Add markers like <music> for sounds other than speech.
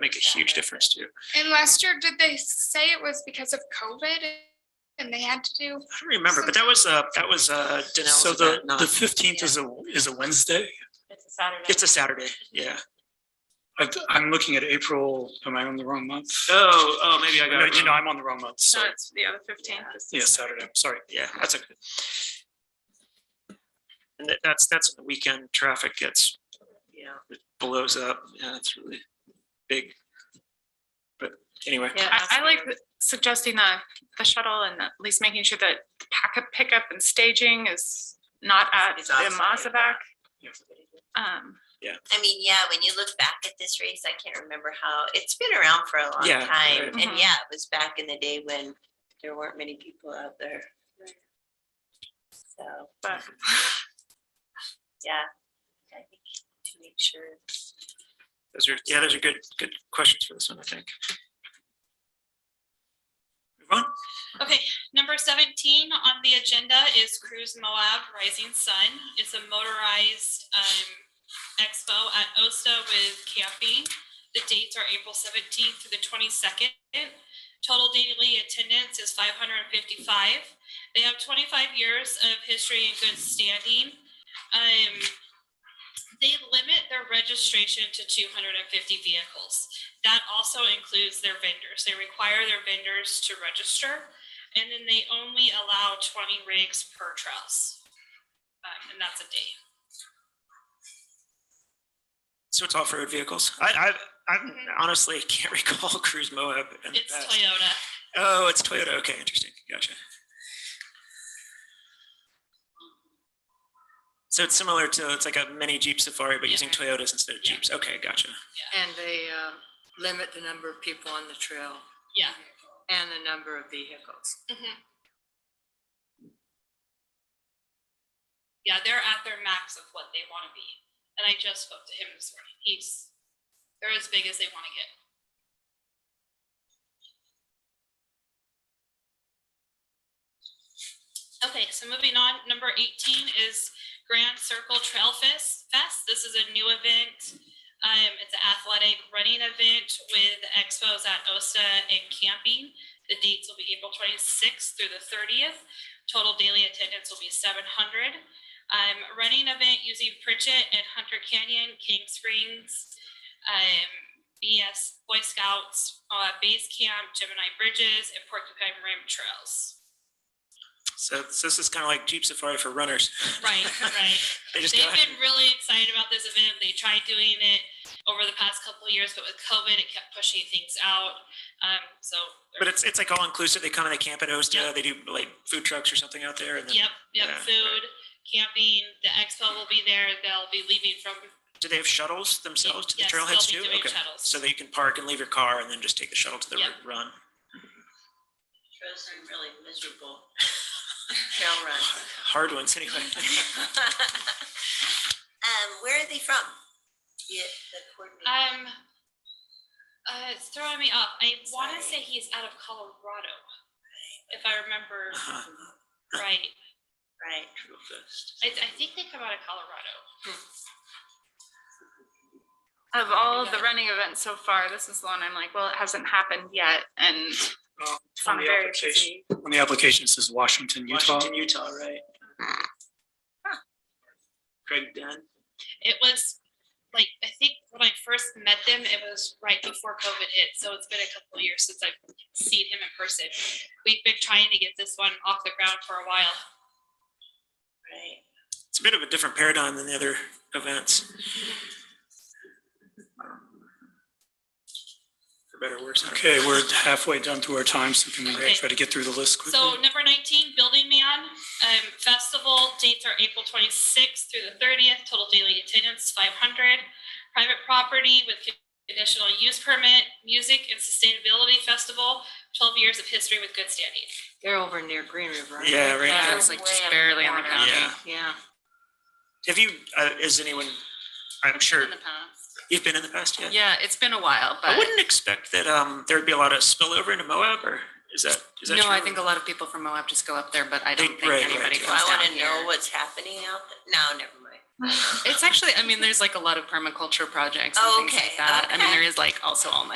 make a huge difference too. And last year, did they say it was because of COVID and they had to do? I don't remember, but that was, uh, that was, uh, Danelle's So the, event, not- the fifteenth is a, is a Wednesday. It's a Saturday. it's a Saturday, yeah. I, I'm looking at April. Am I on the wrong month? Oh, oh, maybe I No, got it. you know, wrong. I'm on the wrong month. Sorry. it's the other fifteenth. Yeah, Saturday. Sorry. Yeah, that's okay. And that, that's, that's the weekend traffic gets, yeah, it blows up. Yeah, it's really big. But anyway, Yeah, I, that's I like weird. the- suggesting the, the shuttle and at least making sure that packet pickup and staging is not at It's the outside. Mazzabak. Um, I mean, yeah, when you look back at this race, I can't remember how, it's been around for a long Yeah, time. right. And Mhm. yeah, it was back in the day when there weren't many people out there. So, But- yeah. I think To make sure. those are, yeah, those are good, good questions for this one, I think. Move on. Okay, number seventeen on the agenda is Cruise Moab Rising Sun. It's a motorized um expo at OSTA with camping. The dates are April seventeenth to the twenty-second. Total daily attendance is five hundred and fifty-five. They have twenty-five years of history and good standing. Um, they limit their registration to two hundred and fifty vehicles. That also includes their vendors. They require their vendors to register. And then they only allow twenty rigs per truss. Um, and that's a day. So it's off-road vehicles. I, I, I honestly can't <laughs> recall Cruise Moab. in the It's past. Toyota. Oh, it's Toyota. Okay, interesting. Gotcha. So it's similar to, it's like a mini Jeep Safari, but using Toyotas instead of Jeeps. Okay, gotcha. And they uh, limit the number of people on the trail Yeah. and the number of vehicles. Mhm. Yeah, they're at their max of what they want to be. And I just spoke to him this morning. He's, they're as big as they want to get. Okay, so moving on, number eighteen is Grand Circle Trail Fest. Fest. This is a new event. Um, it's an athletic running event with expos at OSTA and camping. The dates will be April twenty-sixth through the thirtieth. Total daily attendance will be seven hundred. Um, running event using Pritchett and Hunter Canyon, King Springs, um, BS Boy Scouts, uh, Base Camp, Gemini Bridges, and Porcupine Rim <laughs> Trails. So, so this is kind of like Jeep Safari for runners. Right, right. They <laughs> just go They've out. been really excited about this event. They tried doing it over the past couple of years, but with COVID, it kept pushing things out. Um, so. But it's, it's like all inclusive. They come and they camp at Osta. Yeah. They do like food trucks or something out there. And then, Yep, yep, Yeah, right. food, camping, the expo will be there. They'll be leaving from. do they have shuttles themselves to the Yes, they'll trailheads be too? doing Okay. shuttles. So that you can park and leave your car and then just take the shuttle to the Yeah. r- run. Trails are really miserable. <laughs> Trail <laughs> run. Hard ones anyway. <laughs> Um, where are they from? Yeah, the coordinator. Um, uh, it's throwing me off. I want to say Sorry. he's out of Colorado, if I remember Uh-huh. right. Right. Trail fest. I, I think they come out of Colorado. Of all of the running events so far, this is the one I'm like, well, it hasn't happened yet and it's Um, not On the very application, busy. on the application, it says Washington, Utah. Washington, Utah, right? Ah. Craig Dunn. It was like, I think when I first met them, it was right before COVID hit. So it's been a couple of years since I've seen him in person. We've been trying to get this one off the ground for a while. Right. It's a bit of a different paradigm than the other events. For better or worse. I don't know. Okay, we're halfway done through our time, so can we Okay. try to get through the list quickly? So number nineteen, Building Man, um, festival dates are April twenty-sixth through the thirtieth, total daily attendance five hundred. Private property with conditional use permit, music and sustainability festival, twelve years of history with good standing. They're over near Green River. aren't Yeah, they? right Yeah, there. it's like Way just up barely on the corner. county. Yeah. Yeah. Have you, uh, is anyone, I'm sure in the past. you've been in the past yet? Yeah, it's been a while, I but wouldn't expect that, um, there'd be a lot of spillover into Moab or is that, is that true? no, I think a lot of people from Moab just go up there, but I don't They- think right, right, anybody yeah. Do comes I down wanna know here. what's happening out there? No, never mind. It's actually, I mean, there's like a lot of permaculture projects and things Oh, Okay, like that. I mean, okay. there is like also all